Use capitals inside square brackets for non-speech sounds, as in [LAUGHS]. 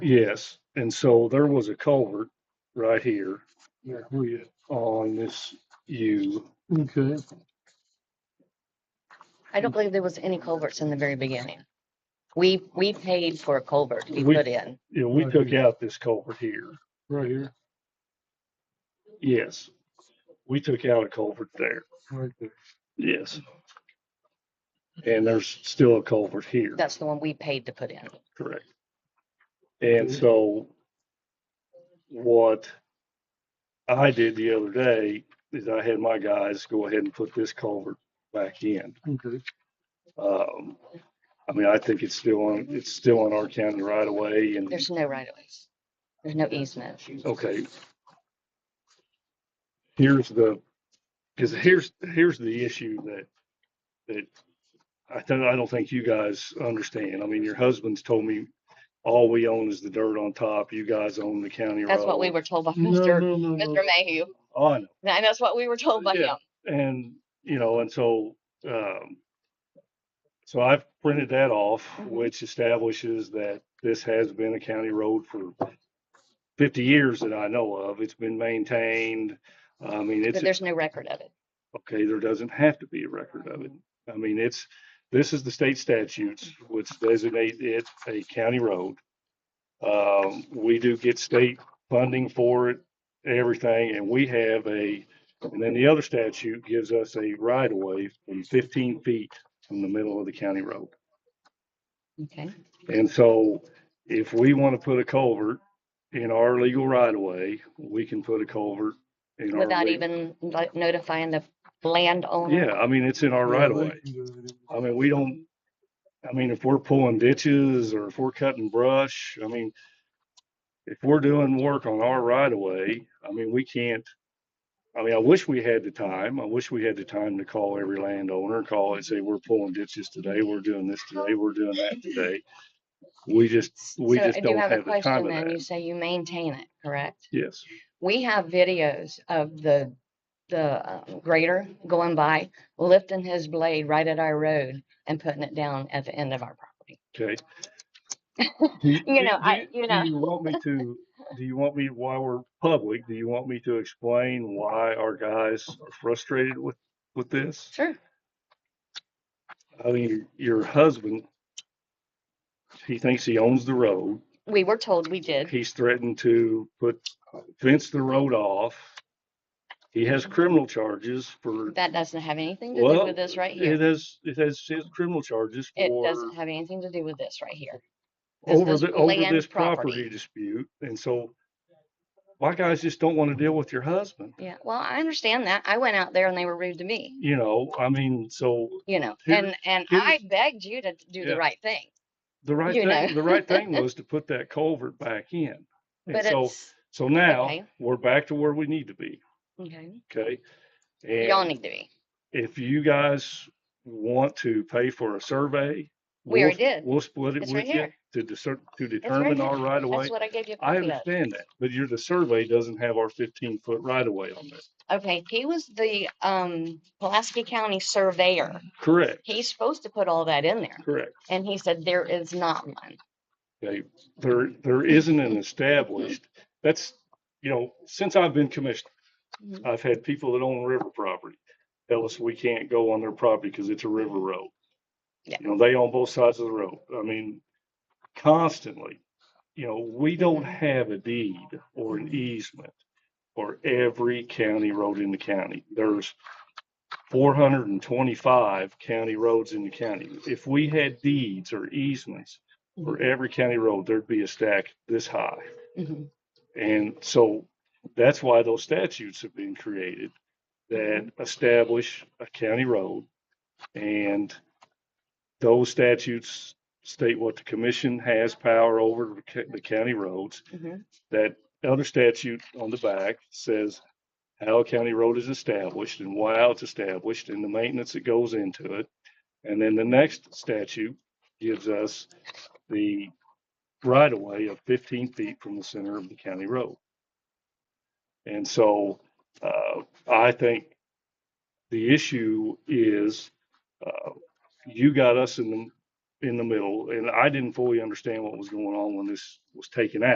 Yes, and so there was a culvert right here Yeah, who you? on this U. Okay, I don't believe there was any culverts in the very beginning. We, we paid for a culvert to be We- put in. Yeah, we took out this culvert here. right here, Yes. We took out a culvert there. right there. Yes. And there's still a culvert here, That's the one we paid to put in. correct? And Mhm. so what I did the other day is I had my guys go ahead and put this culvert back in. Okay, Um, I mean, I think it's still on, it's still on our county right away and There's no right of ways. There's no easement. okay. Here's the, because here's, here's the issue that, that I don't, I don't think you guys understand. I mean, your husband's told me all we own is the dirt on top. You guys own the county road. Oh, That's what we were told by no, Mr. no, no, no, Mr. Mayhew. On, And that's what we were told by Yeah. him. and, you know, and so, um, so I've printed that off, Mhm. which establishes that this has been a county road for fifty years that I know of. It's been maintained. I mean, it's. But there's no record of it. okay, there doesn't have to be a record of it. I mean, it's, this is the state statutes which designate it a county road. Um, we do get state funding for it, everything, and we have a, and then the other statute gives us a right of way from fifteen feet from the middle of the county road. Okay. And so if we want to put a culvert in our legal right of way, we can put a culvert in our. Without leg- even like, notifying the landowner. Yeah, I mean, it's in our Yeah, right of they way. can do it. I mean, we don't, I mean, if we're pulling ditches or if we're cutting brush, I mean, if we're doing work on our right of way, I mean, we can't, I mean, I wish we had the time. I wish we had the time to call every landowner, call and say, we're pulling ditches today, we're doing this today, we're doing that today. We just, we So I just do don't have a have the time question for then. You that. say you maintain it, correct? Yes, We have videos of the, the uh, grader going by, lifting his blade right at our road and putting it down at the end of our property. [LAUGHS] okay. You know, I, you know, Do you want me to, do you want me, while we're public, do you want me to explain why our guys are frustrated with, with this? sure. I mean, your husband, he thinks he owns the road. We were told we did. He's threatened to put, fence the road off. He has criminal charges for, That doesn't have anything to do well, with this right it here. has, it has his criminal charges It for doesn't have anything to do with this right here. this over is the, over land this property property. dispute. And so my guys just don't want to deal with your husband, Yeah, well, I understand that. I went out there and they were rude to me, you know, I mean, so you know, Here- and, and here's- I begged you to do Yeah. the right thing. the right You know. thing, the right [LAUGHS] thing was to put that culvert back in. And But so, it's, so now okay. we're back to where we need to be. okay, Okay. y'all And need to be. if you guys want to pay for a survey. We already we'll- did. We'll split it It's with right you here. to discern, to determine here. our right of way. That's what I gave you. a I copy of. understand that, but your, the survey doesn't have our fifteen foot right of way on it. Okay, he was the, um, Pulaski County Surveyor. Correct, He's supposed to put all that in there. correct. And he said there is not one. Okay, there, there isn't an established, that's, you know, since I've been commissioner, Mhm. I've had people that own river property tell us we can't go on their property because it's a river road. Yeah. You know, they own both sides of the road. I mean, constantly, you know, we don't have a deed or an easement for every county road in the county. There's four hundred and twenty-five county roads in the county. If we had deeds or easements for every county road, there'd be a stack this high. Mhm. And so that's why those statutes have been created that establish a county road. And those statutes state what the commission has power over the ca- the county roads. Mhm. That other statute on the back says how a county road is established and why it's established and the maintenance that goes into it. And then the next statute gives us the right of way of fifteen feet from the center of the county road. And so, uh, I think the issue is, uh, you got us in the, in the middle, and I didn't fully understand what was going on when this was taken out.